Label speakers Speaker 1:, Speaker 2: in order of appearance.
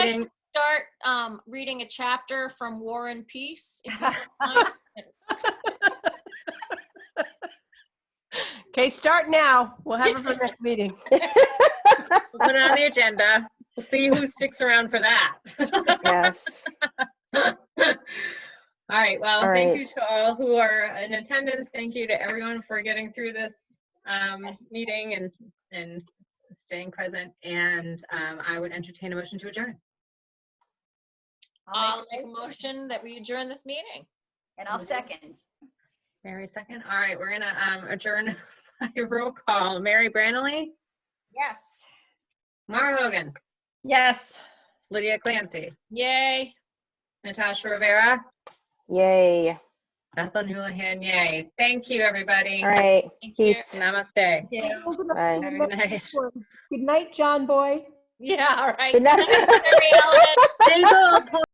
Speaker 1: like to
Speaker 2: Thanks.
Speaker 1: start um, reading a chapter from War and Peace. if you don't mind.
Speaker 3: Okay, start now. We'll have it for next meeting.
Speaker 2: We'll put it on the agenda. We'll see who sticks around for that.
Speaker 4: Yes.
Speaker 2: All right, well,
Speaker 4: All
Speaker 2: thank
Speaker 4: right.
Speaker 2: you to all who are in attendance. Thank you to everyone for getting through this um, meeting and, and staying present. And um, I would entertain a motion to adjourn.
Speaker 1: I'll
Speaker 5: I'll
Speaker 1: make uh, a
Speaker 5: motion.
Speaker 1: motion that we adjourn this meeting.
Speaker 5: And I'll second.
Speaker 2: Mary second. All right, we're gonna um, adjourn by roll call. Mary Brannely,
Speaker 5: Yes.
Speaker 2: Mara Hogan,
Speaker 3: Yes.
Speaker 2: Lydia Clancy,
Speaker 1: Yay.
Speaker 2: Natasha Rivera,
Speaker 4: Yay.
Speaker 2: Bethland Houlihan, yay. Thank you, everybody.
Speaker 4: All right.
Speaker 1: Thank you.
Speaker 4: Peace.
Speaker 2: Namaste.
Speaker 4: Bye.
Speaker 2: Very nice.
Speaker 6: Good night, John Boy.
Speaker 1: Yeah, all right.
Speaker 4: Good night.
Speaker 1: Happy holidays.